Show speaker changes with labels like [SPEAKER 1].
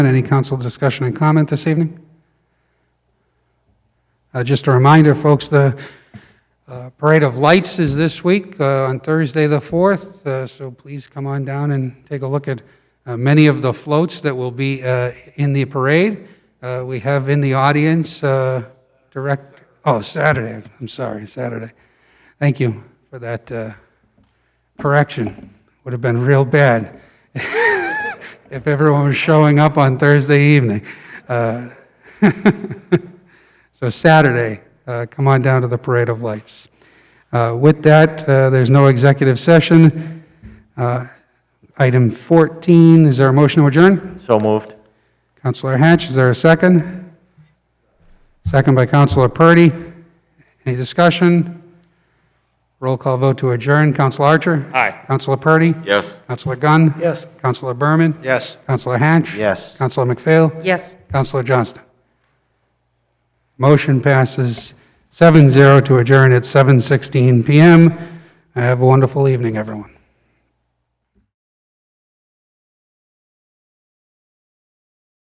[SPEAKER 1] Any council discussion and comment this evening? Uh, Just a reminder, folks, the uh, Parade of Lights is this week uh, on Thursday, the 4th, uh, so please come on down and take a look at uh, many of the floats that will be uh, in the parade. Uh, We have in the audience, uh, direct, oh, Saturday, I'm sorry, Saturday. Thank you for that uh, correction. Would have been real bad if everyone was showing up on Thursday evening. Uh, So Saturday, uh, come on down to the Parade of Lights. Uh, With that, uh, there's no executive session. Uh, Item 14, is there a motion to adjourn?
[SPEAKER 2] So moved.
[SPEAKER 1] Counselor Hatch, is there a second? Second by Counselor Purdy. Any discussion? Roll call vote to adjourn. Counselor Archer?
[SPEAKER 2] Aye.
[SPEAKER 1] Counselor Purdy?
[SPEAKER 2] Yes.
[SPEAKER 1] Counselor Gunn?
[SPEAKER 3] Yes.
[SPEAKER 1] Counselor Berman?
[SPEAKER 3] Yes.
[SPEAKER 1] Counselor Hatch?
[SPEAKER 2] Yes.
[SPEAKER 1] Counselor McPhail?
[SPEAKER 4] Yes.
[SPEAKER 1] Counselor Johnston? Motion passes 7-0 to adjourn at 7:16 PM. Have a wonderful evening, everyone.